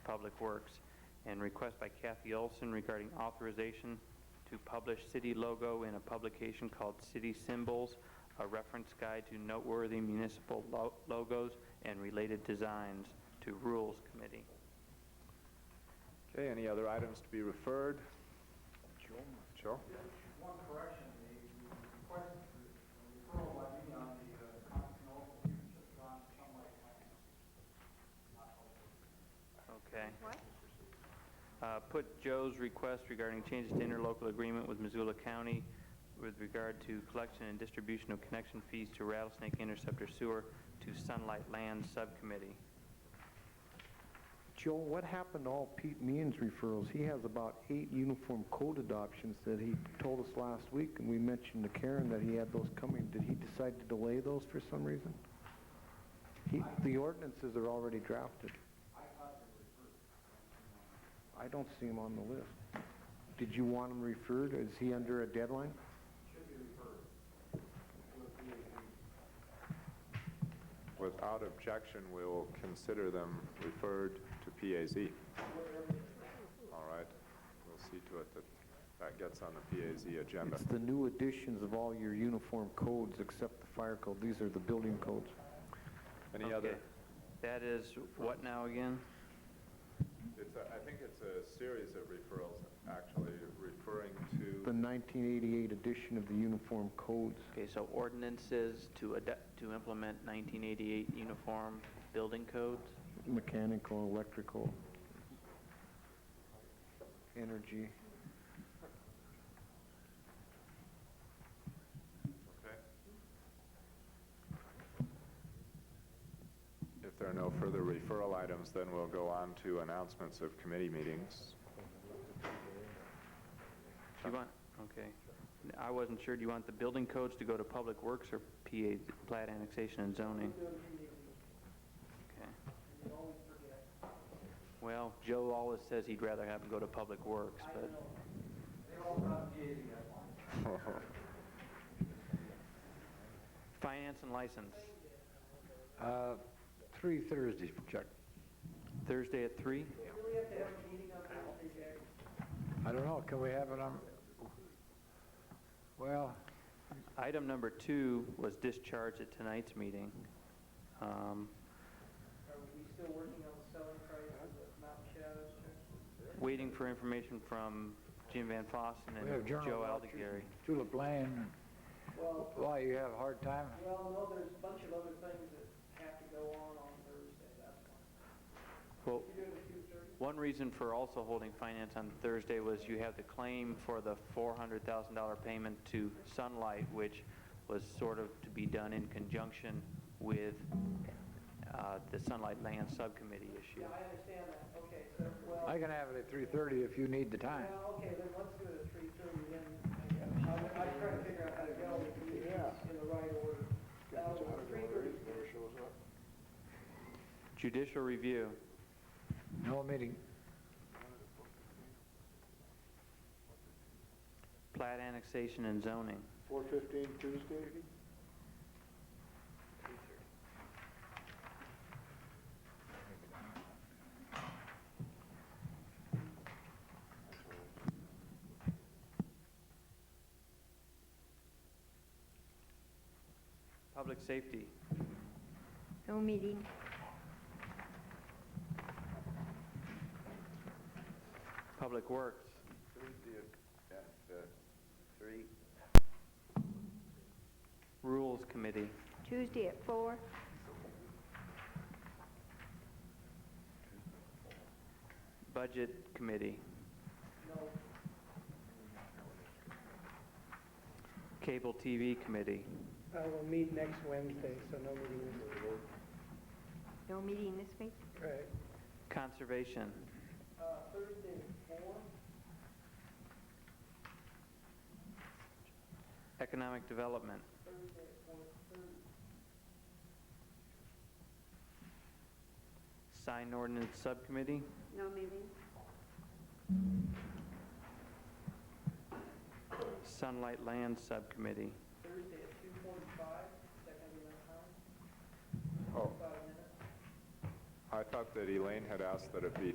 Public Works, and request by Kathy Olson regarding authorization to publish city logo in a publication called City Symbols, a reference guide to noteworthy municipal lo- logos and related designs to Rules Committee. Okay, any other items to be referred? Joe? One correction, the request, the referral by me on the uh, Continental Union of John Chumley Plan. Okay. What? Uh, Put Joe's request regarding changes to interlocal agreement with Missoula County with regard to collection and distribution of connection fees to Rattlesnake Interceptor Sewer to Sunlight Land Subcommittee. Joe, what happened to all Pete Meehan's referrals? He has about eight uniform code adoptions that he told us last week, and we mentioned to Karen that he had those coming. Did he decide to delay those for some reason? He, the ordinances are already drafted. I don't see him on the list. Did you want him referred? Is he under a deadline? Without objection, we will consider them referred to PAZ. All right, we'll see to it that that gets on the PAZ agenda. It's the new additions of all your uniform codes except the fire code. These are the building codes. Any other? Okay. That is what now again? It's, a- I think it's a series of referrals, actually, referring The to, 1988 edition of the uniform codes. Okay, so ordinances to adapt, to implement 1988 Uniform Building Codes? mechanical, electrical, energy. okay? If there are no further referral items, then we'll go on to announcements of committee meetings. Do you want, okay. I wasn't sure, do you want the building codes to go to Public Works or PA, plat annexation and zoning? Okay. Well, Joe always says he'd rather have them go to Public Works, but, They all got the eighty, I want. finance and license, Uh, Three Thursdays, Chuck. Thursday at three? I don't know, can we have it on, well, Item number two was discharged at tonight's meeting. Um, Are we still working on the selling price of the Mountain Shadows? Waiting for information from Jim Van Fossen we have and General Joe Electric, Aldegary. Tulip Lane, Well, why, you have a hard time? well, no, there's a bunch of other things that have to go on on Thursday, that's why. Well, You doing a few thirty? One reason for also holding finance on Thursday was you have the claim for the $400,000 payment to Sunlight, which was sort of to be done in conjunction with uh, the Sunlight Land Subcommittee issue. Yeah, I understand that, okay, so, well. I can have it at three-thirty if you need the time. Well, okay, then let's do it at three thirty, then, I, I try to figure out how to go, if we do this in the right order. Now, three thirty, Judicial review, No meeting, plat annexation and zoning. Four fifteen Tuesday? Public safety, No meeting. public works, Three. rules committee, Tuesday at four. budget committee, no, cable TV committee. Uh, we'll meet next Wednesday, so no meeting this week. No meeting this week. Right. Conservation, uh, Thursday at four, economic development, Thursday at four thirty. sign ordinance subcommittee, No meeting. Sunlight Land Subcommittee. Thursday at two forty-five, is that gonna be enough time? Oh, Five minutes? I thought that Elaine had asked that it be